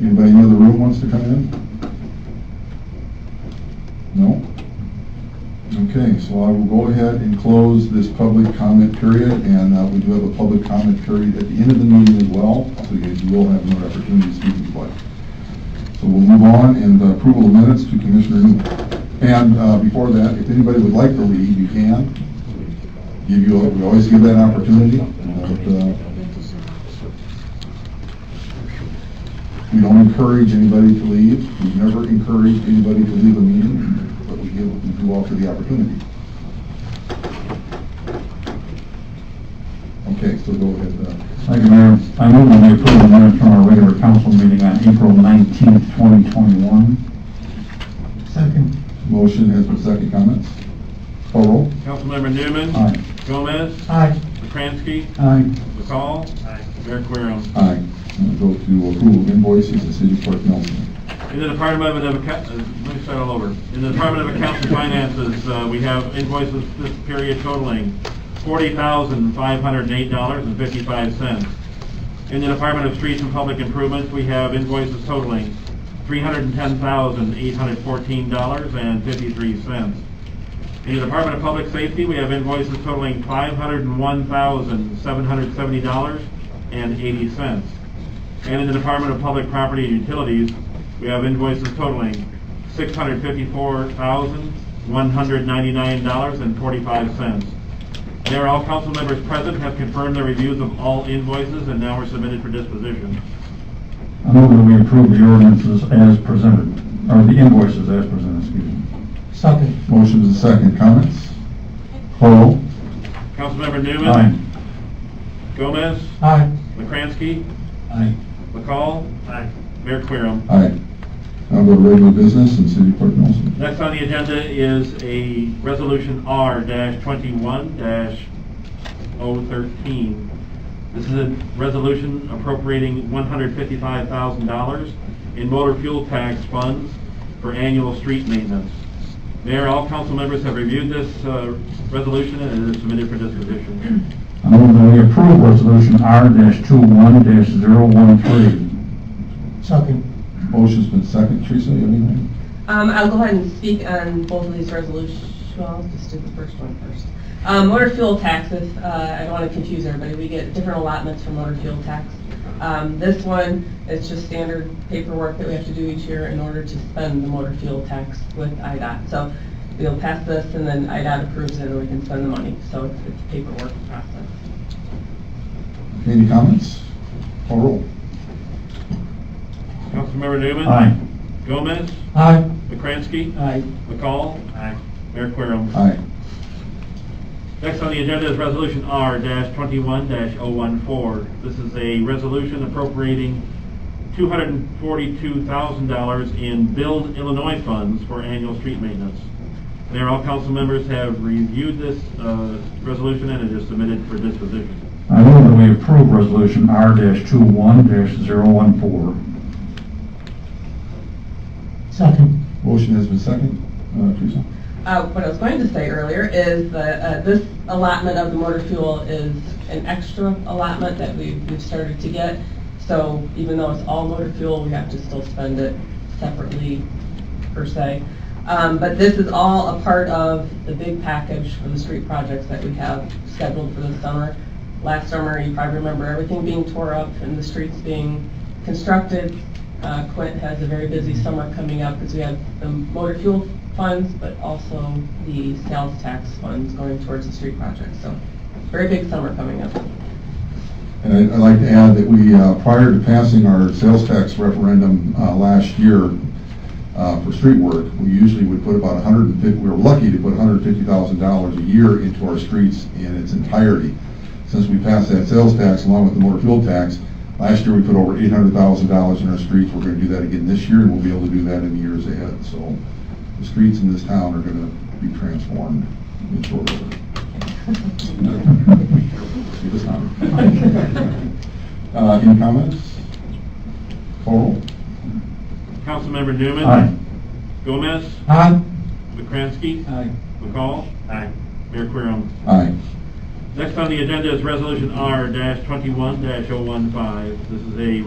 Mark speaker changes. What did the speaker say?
Speaker 1: Anybody in the other room wants to come in? No? Okay, so I will go ahead and close this public comment period, and uh, we do have a public comment period at the end of the meeting as well, so you guys will have another opportunity to speak if you'd like. So we'll move on, and the approval of minutes to Commissioner Newman. And uh, before that, if anybody would like to leave, you can. Give you, we always give that opportunity, but uh, We don't encourage anybody to leave. We've never encouraged anybody to leave a meeting, but we give, we do offer the opportunity. Okay, so go ahead. uh,
Speaker 2: Thank you, Mayor. I move that we approve the minutes from our regular council meeting on April 19th, 2021.
Speaker 3: Second.
Speaker 1: Motion has been second comments. Call roll.
Speaker 4: Councilmember Newman.
Speaker 2: Aye.
Speaker 4: Gomez.
Speaker 3: Aye.
Speaker 4: McCrankey.
Speaker 2: Aye.
Speaker 4: McCall. Mayor Querem.
Speaker 1: Aye. And we'll go to approval of invoices and city clerk Nelson.
Speaker 4: In the Department of, Acco- uh, let me start all over. In the Department of Accounts and Finances, uh, we have invoices this period totaling $40,508.55. In the Department of Streets and Public Improvements, we have invoices totaling $310,814.53. In the Department of Public Safety, we have invoices totaling $501,770.80. And in the Department of Public Property and Utilities, we have invoices totaling six hundred fifty-four thousand, one hundred ninety-nine dollars and forty-five cents. There, all council members present have confirmed their reviews of all invoices and now are submitted for disposition.
Speaker 2: I move that we approve the ordinances as presented, or the invoices as presented, excuse me.
Speaker 3: Second.
Speaker 1: Motion is second comments. Call roll.
Speaker 4: Councilmember Newman.
Speaker 2: Aye.
Speaker 4: Gomez.
Speaker 3: Aye.
Speaker 4: McCrankey.
Speaker 2: Aye.
Speaker 4: McCall. Mayor Querem.
Speaker 1: Aye. Now go to regular business and city clerk Nelson.
Speaker 4: Next on the agenda is a resolution R twenty-one 13 This is a resolution appropriating one hundred fifty-five thousand dollars in motor fuel tax funds for annual street maintenance. Mayor, all council members have reviewed this, uh, resolution and it is submitted for disposition.
Speaker 2: I move that we approve resolution R-21-013.
Speaker 3: Second.
Speaker 1: Motion's been second. Teresa, you have anything?
Speaker 5: Um, I'll go ahead and speak on both of these resolutions, well, I'll just do the first one first. Um, motor fuel taxes, uh, I don't wanna confuse everybody, we get different allotments for motor fuel tax. Um, this one is just standard paperwork that we have to do each year in order to spend the motor fuel tax with IDOT. So we'll pass this and then IDOT approves it and we can spend the money, so it's, it's a paperwork process.
Speaker 1: Any comments? Call roll.
Speaker 4: Councilmember Newman?
Speaker 2: Aye.
Speaker 4: Gomez?
Speaker 3: Aye.
Speaker 4: McCrankey?
Speaker 3: Aye.
Speaker 4: McCall? Mayor Querem.
Speaker 1: Aye.
Speaker 4: Next on the agenda is Resolution R twenty-one 14 This is a resolution appropriating two hundred and forty-two thousand dollars in Build Illinois funds for annual street maintenance. Mayor, all council members have reviewed this, uh, resolution and it is submitted for disposition.
Speaker 2: I move that we approve resolution R-21-014.
Speaker 3: Second.
Speaker 1: Motion has been second. Uh, Teresa?
Speaker 5: Uh, what I was going to say earlier is that, uh, this allotment of the motor fuel is an extra allotment that we've, we've started to get. So even though it's all motor fuel, we have to still spend it separately per se. Um, but this is all a part of the big package for the street projects that we have scheduled for this summer. Last summer, you probably remember everything being tore up and the streets being constructed. Uh, Quint has a very busy summer coming up because we have the motor fuel funds, but also the sales tax funds going towards the street project. So very big summer coming up.
Speaker 1: And I- I'd like to add that we, uh, prior to passing our sales tax referendum uh, last year uh, for street work, we usually would put about 150, we were lucky to put $150,000 a year into our streets in its entirety. Since we passed that sales tax along with the motor fuel tax, last year we put over $800,000 in our streets. We're going to do that again this year, and we'll be able to do that in the years ahead. So the streets in this town are going to be transformed in short order. It was not. Uh, Any comments? Call
Speaker 4: Councilmember Newman?
Speaker 2: Aye.
Speaker 4: Gomez?
Speaker 3: Aye.
Speaker 4: McCrankey?
Speaker 2: uh,
Speaker 3: Aye.
Speaker 4: McCall? Mayor Querem.
Speaker 1: roll. Aye.
Speaker 4: Next on the agenda is Resolution R twenty-one 15 oh This is a